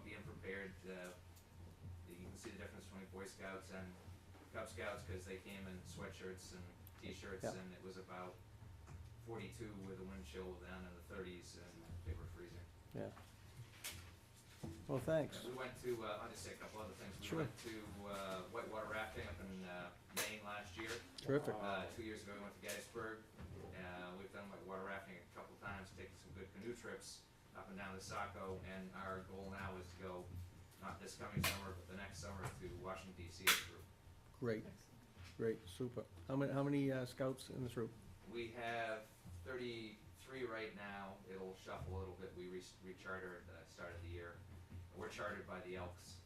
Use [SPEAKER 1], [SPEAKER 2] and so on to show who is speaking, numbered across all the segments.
[SPEAKER 1] the, uh, you can see the difference between Boy Scouts and Cub Scouts, cause they came in sweatshirts and t-shirts,
[SPEAKER 2] Yep.
[SPEAKER 1] and it was about forty-two with a wind chill down in the thirties, and they were freezing.
[SPEAKER 2] yeah. Well, thanks.
[SPEAKER 1] We went to, uh, I'll just say a couple other things. We
[SPEAKER 2] Sure.
[SPEAKER 1] went to uh, whitewater rafting up in uh, Maine last year.
[SPEAKER 2] Terrific.
[SPEAKER 1] Uh, two years ago, we went to Gettysburg. Uh, we've done whitewater rafting a couple times, taken some good canoe trips up and down the Saco. And our goal now is to go, not this coming summer, but the next summer to Washington DC as a group.
[SPEAKER 2] Great, great, super. How many, how many uh, scouts in this group?
[SPEAKER 1] We have thirty-three right now. It'll shuffle a little bit. We re- recharter at the start of the year. We're chartered by the Elks.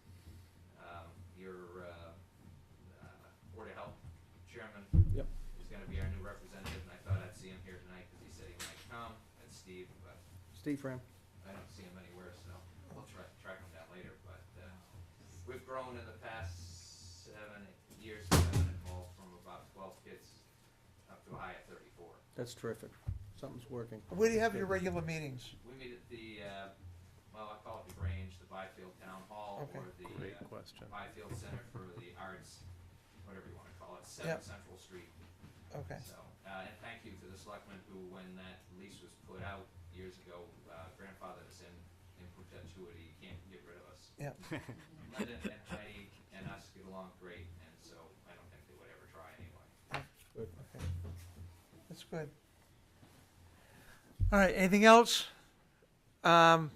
[SPEAKER 1] Um, your, uh, uh, Board of Health Chairman
[SPEAKER 2] Yep.
[SPEAKER 1] is gonna be our new representative, and I thought I'd see him here tonight, cause he said he might come. That's Steve, but
[SPEAKER 2] Steve Fram.
[SPEAKER 1] I don't see him anywhere, so I'll try, track him down later, but, uh, we've grown in the past seven years, that I've been involved from about twelve kids up to a high of thirty-four.
[SPEAKER 2] That's terrific. Something's working.
[SPEAKER 3] Where do you have your regular meetings?
[SPEAKER 1] We meet at the, uh, well, I call it the Grange, the Byfield Town Hall,
[SPEAKER 3] Okay.
[SPEAKER 1] or the
[SPEAKER 4] Great
[SPEAKER 1] uh,
[SPEAKER 4] question.
[SPEAKER 1] Byfield Center for the Arts, whatever you wanna call it, Seven
[SPEAKER 3] Yep.
[SPEAKER 1] Central Street.
[SPEAKER 3] Okay,
[SPEAKER 1] So, uh, and thank you to the selectmen who, when that lease was put out years ago, uh, grandfathered us in, in perpetuity, You can't get rid of us.
[SPEAKER 3] yeah,
[SPEAKER 1] Linda and Heidi and us get along great, and so I don't think they would ever try anyway.
[SPEAKER 2] Good.
[SPEAKER 3] okay. That's good. All right, anything else? Um,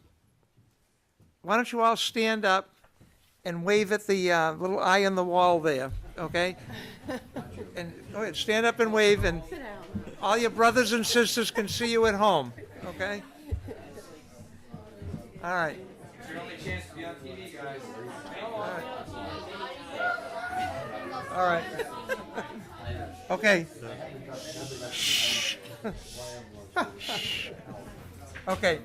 [SPEAKER 3] Why don't you all stand up and wave at the uh, little eye on the wall there, okay? And, go ahead, stand up and wave, and
[SPEAKER 5] Sit down.
[SPEAKER 3] all your brothers and sisters can see you at home, okay? All right.
[SPEAKER 1] It's your only chance to be on TV, guys.
[SPEAKER 3] All right. Okay. Okay.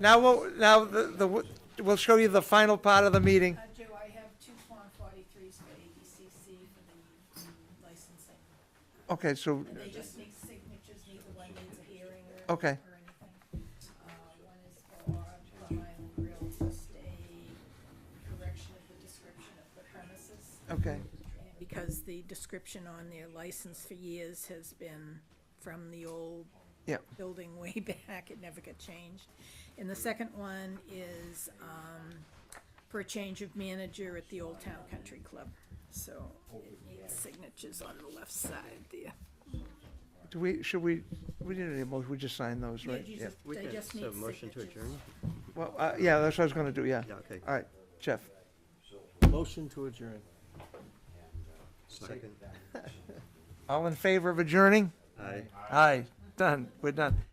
[SPEAKER 3] Now, we'll now, the, the, we'll show you the final part of the meeting.
[SPEAKER 5] Uh, Joe, I have two Form 43s for ABCC for the mm, licensing.
[SPEAKER 3] Okay, so,
[SPEAKER 5] And they just need signatures, neither one needs a hearing or, or
[SPEAKER 3] Okay.
[SPEAKER 5] anything. Uh, one is for Plum Island Grill, just a correction of the description of the premises.
[SPEAKER 3] okay,
[SPEAKER 5] Because the description on their license for years has been from the old
[SPEAKER 3] yeah,
[SPEAKER 5] building way back, it never got changed. And the second one is, um, for a change of manager at the Old Town Country Club. So it needs signatures on the left side there.
[SPEAKER 3] do we, should we, we didn't need a motion, we just signed those,
[SPEAKER 5] Yeah,
[SPEAKER 3] right?
[SPEAKER 5] you
[SPEAKER 3] Yeah.
[SPEAKER 5] just- They just need
[SPEAKER 4] So motion to
[SPEAKER 5] signatures.
[SPEAKER 4] adjourn?
[SPEAKER 3] Well, uh, yeah, that's what I was gonna do, yeah.
[SPEAKER 4] Yeah, okay.
[SPEAKER 3] All right, Jeff,
[SPEAKER 2] Motion to adjourn.
[SPEAKER 4] Second.
[SPEAKER 3] all in favor of adjourning?
[SPEAKER 4] Aye.
[SPEAKER 3] Aye, done, we're done.